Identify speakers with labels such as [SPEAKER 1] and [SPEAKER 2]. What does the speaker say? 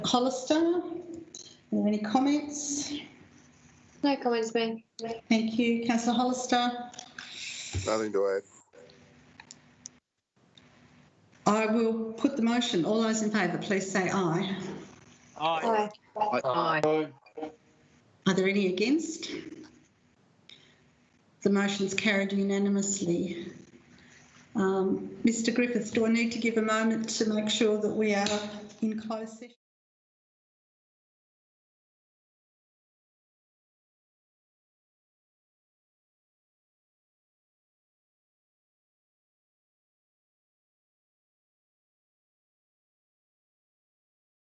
[SPEAKER 1] Hollister. Are there any comments?
[SPEAKER 2] No comments, Mayor.
[SPEAKER 1] Thank you, councillor Hollister.
[SPEAKER 3] Nothing to add.
[SPEAKER 1] I will put the motion. All those in favour, please say aye.
[SPEAKER 4] Aye.
[SPEAKER 2] Aye.
[SPEAKER 1] Are there any against? The motion's carried unanimously. Um, Mr Griffiths, do I need to give a moment to make sure that we are in closed session?